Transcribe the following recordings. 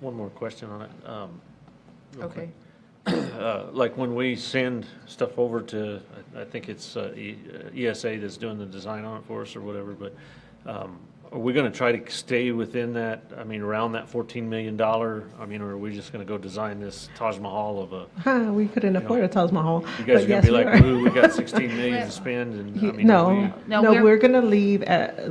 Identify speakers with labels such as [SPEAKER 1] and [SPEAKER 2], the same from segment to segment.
[SPEAKER 1] One more question on it. um, real
[SPEAKER 2] Okay,
[SPEAKER 1] quick. Uh, Like when we send stuff over to, I- I think it's uh, E- uh, ESA that's doing the design on it for us or whatever, but um, are we going to try to stay within that, I mean, around that $14 million? I mean, or are we just going to go design this Taj Mahal of a,
[SPEAKER 3] Huh, we couldn't afford a Taj Mahal.
[SPEAKER 1] you guys are going
[SPEAKER 3] but yes,
[SPEAKER 1] to be
[SPEAKER 3] we
[SPEAKER 1] like,
[SPEAKER 3] are.
[SPEAKER 1] ooh, we got 16 million to spend and, I
[SPEAKER 3] You-
[SPEAKER 1] mean, are we-
[SPEAKER 3] No,
[SPEAKER 2] No,
[SPEAKER 3] no,
[SPEAKER 2] we're-
[SPEAKER 3] we're gonna leave at,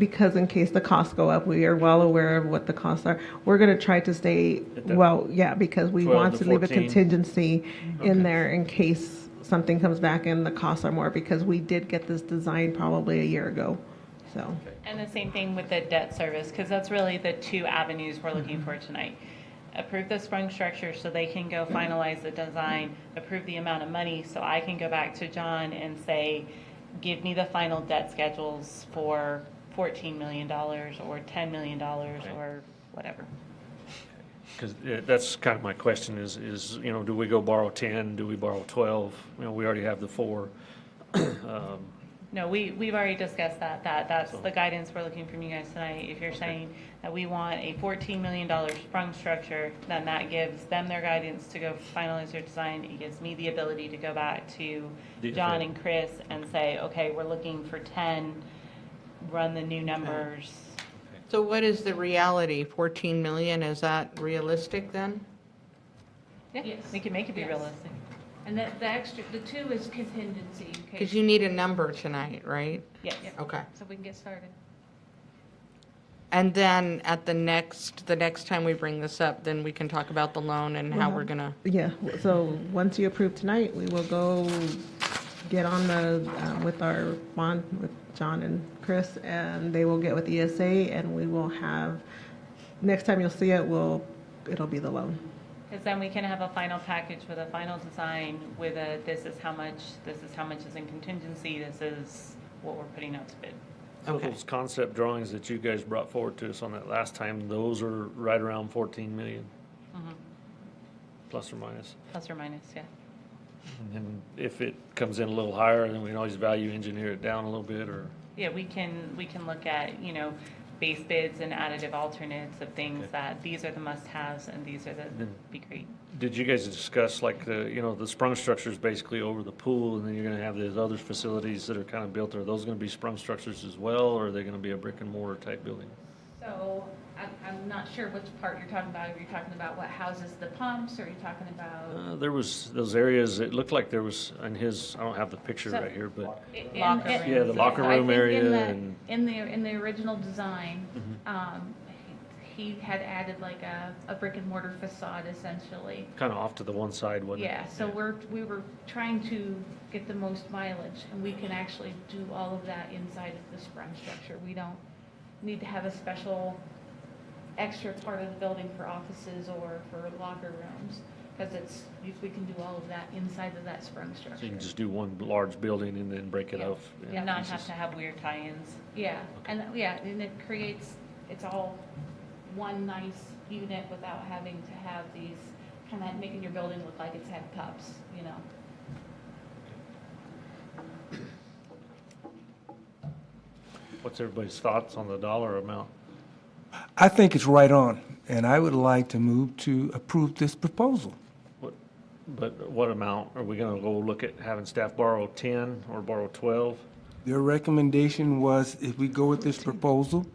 [SPEAKER 3] because in case the costs go up, we are well aware of what the costs are. We're gonna try to stay,
[SPEAKER 1] At that
[SPEAKER 3] well, yeah, because we
[SPEAKER 1] 12
[SPEAKER 3] want
[SPEAKER 1] to
[SPEAKER 3] to leave a
[SPEAKER 1] 14.
[SPEAKER 3] contingency
[SPEAKER 1] Okay.
[SPEAKER 3] in there in case something comes back and the costs are more, because we did get this design probably a year ago, so.
[SPEAKER 4] And the same thing with the debt service, because that's really the two avenues we're looking for tonight. Approve the sprung structure so they can go finalize the design, approve the amount of money, so I can go back to John and say, give me the final debt schedules for fourteen million dollars or ten million dollars
[SPEAKER 1] Okay.
[SPEAKER 4] or whatever.
[SPEAKER 1] Because that's kind of my question is, is, you know, do we go borrow 10? Do we borrow 12? You know, we already have the four. Um,
[SPEAKER 4] No, we, we've already discussed that, that, that's
[SPEAKER 1] So-
[SPEAKER 4] the guidance we're looking from you guys tonight. If you're saying that we want a fourteen million dollar sprung structure, then that gives them their guidance to go finalize their design. It gives me the ability to go back to
[SPEAKER 1] The-
[SPEAKER 4] John and Chris and say, okay, we're looking for ten, run the new numbers.
[SPEAKER 2] so what is the reality? 14 million, is that realistic then?
[SPEAKER 4] Yeah,
[SPEAKER 5] Yes.
[SPEAKER 4] we can make it be
[SPEAKER 5] Yes.
[SPEAKER 4] realistic.
[SPEAKER 5] And that, the extra, the two is contingency in
[SPEAKER 2] Because
[SPEAKER 5] case,
[SPEAKER 2] you need a number tonight, right?
[SPEAKER 4] Yes,
[SPEAKER 5] Yep.
[SPEAKER 2] Okay.
[SPEAKER 5] so we can get started.
[SPEAKER 2] And then at the next, the next time we bring this up, then we can talk about the loan and how we're gonna,
[SPEAKER 3] Yeah, so once you approve tonight, we will go get on the, um, with our bond with John and Chris, and they will get with ESA, and we will have, next time you'll see it, we'll, it'll be the loan.
[SPEAKER 4] because then we can have a final package with a final design with a, this is how much, this is how much is in contingency, this is what we're putting out to bid.
[SPEAKER 1] So
[SPEAKER 2] Okay.
[SPEAKER 1] those concept drawings that you guys brought forward to us on that last time, those are right around 14 million,
[SPEAKER 5] Mm-hmm.
[SPEAKER 4] Mhm.
[SPEAKER 1] plus or minus.
[SPEAKER 4] Plus or minus, yeah.
[SPEAKER 1] And then if it comes in a little higher, then we can always value engineer it down a little bit or,
[SPEAKER 4] Yeah, we can, we can look at, you know, base bids and additive alternates of things
[SPEAKER 1] Okay.
[SPEAKER 4] that, these are the must-haves and these are the,
[SPEAKER 1] Then-
[SPEAKER 6] Mm-hmm.
[SPEAKER 4] be great.
[SPEAKER 1] did you guys discuss like the, you know, the sprung structures basically over the pool and then you're going to have these other facilities that are kind of built? Are those going to be sprung structures as well or are they going to be a brick and mortar type building?
[SPEAKER 5] So I'm, I'm not sure which part you're talking about. Are you talking about what houses the pumps or are you talking about?
[SPEAKER 1] Uh, There was those areas, it looked like there was, in his, I don't have the picture
[SPEAKER 5] So-
[SPEAKER 1] right here, but
[SPEAKER 5] In-
[SPEAKER 4] Uh, Locker
[SPEAKER 5] in-
[SPEAKER 4] room. Yeah, the
[SPEAKER 1] locker
[SPEAKER 5] I
[SPEAKER 1] room
[SPEAKER 5] think in
[SPEAKER 1] area
[SPEAKER 5] the-
[SPEAKER 1] and- Mm-hmm.
[SPEAKER 5] In the, in the original design, um, he he had added like a, a brick and mortar facade essentially.
[SPEAKER 1] kind of off to the one side, wasn't it?
[SPEAKER 5] Yeah, so we're, we were trying to get the most mileage, and we can actually do all of that inside of the sprung structure. We don't need to have a special extra part of the building for offices or for locker rooms, because it's, we- we can do all of that inside of that sprung
[SPEAKER 1] So you
[SPEAKER 5] structure.
[SPEAKER 1] can just do one large building and then break it
[SPEAKER 5] Yeah.
[SPEAKER 1] off.
[SPEAKER 4] And not have to have weird tie-ins.
[SPEAKER 5] Yeah, and, yeah, and it creates, it's all one nice unit without having to have these, kind of making your building look like it's had pups, you know?
[SPEAKER 1] What's everybody's thoughts on the dollar amount?
[SPEAKER 7] I think it's right on, and I would like to move to approve this proposal.
[SPEAKER 1] What, but what amount? Are we gonna go look at having staff borrow ten or borrow twelve?
[SPEAKER 7] Their recommendation was if we go with this proposal,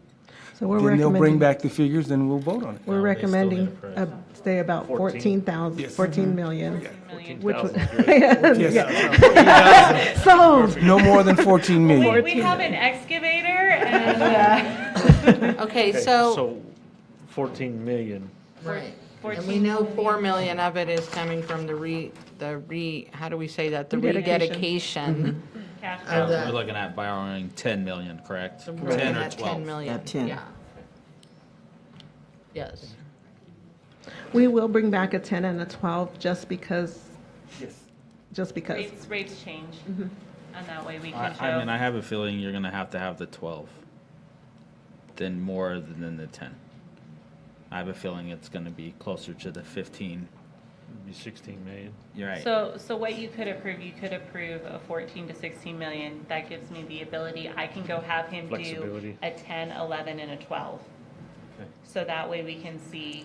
[SPEAKER 3] So we're
[SPEAKER 7] then they'll
[SPEAKER 3] recommending,
[SPEAKER 7] bring back the figures and we'll vote on it.
[SPEAKER 3] we're
[SPEAKER 6] No, they still need a
[SPEAKER 3] recommending,
[SPEAKER 6] price.
[SPEAKER 3] uh, stay about
[SPEAKER 1] Fourteen.
[SPEAKER 3] fourteen thousand,
[SPEAKER 7] Yes. Mm-hmm.
[SPEAKER 3] fourteen million.
[SPEAKER 4] Million.
[SPEAKER 3] Which was-
[SPEAKER 1] 14,000.
[SPEAKER 7] Yes,
[SPEAKER 3] Sold.
[SPEAKER 7] no more than 14
[SPEAKER 4] We,
[SPEAKER 7] million.
[SPEAKER 4] we have an excavator and,
[SPEAKER 2] okay,
[SPEAKER 4] uh,
[SPEAKER 1] Okay,
[SPEAKER 2] so,
[SPEAKER 1] So fourteen million.
[SPEAKER 2] right. And we
[SPEAKER 4] 14
[SPEAKER 2] know 4 million of it is coming from the re, the re, how do we say that? The rededication.
[SPEAKER 3] Rededication.
[SPEAKER 4] cash
[SPEAKER 2] Of
[SPEAKER 4] flow.
[SPEAKER 2] the-
[SPEAKER 6] Um, We're looking at borrowing 10 million, correct?
[SPEAKER 2] We're
[SPEAKER 6] 10
[SPEAKER 2] looking
[SPEAKER 6] or
[SPEAKER 2] at 10
[SPEAKER 6] 12.
[SPEAKER 2] million.
[SPEAKER 8] At 10.
[SPEAKER 2] yeah. Yes.
[SPEAKER 3] We will bring back a ten and a twelve, just because, just because.
[SPEAKER 4] Rates, rates change. And that way we
[SPEAKER 6] I
[SPEAKER 4] can
[SPEAKER 6] I mean, I
[SPEAKER 4] show,
[SPEAKER 6] have a feeling you're going to have to have the 12, then more than the 10. I have a feeling it's going to be closer to the 15.
[SPEAKER 1] It'd be sixteen million.
[SPEAKER 6] You're right.
[SPEAKER 4] so, so what you could approve, you could approve a 14 to 16 million. That gives me the ability, I can go have him do
[SPEAKER 1] Flexibility.
[SPEAKER 4] a 10, 11, and a 12.
[SPEAKER 6] Okay.
[SPEAKER 4] So that way we can see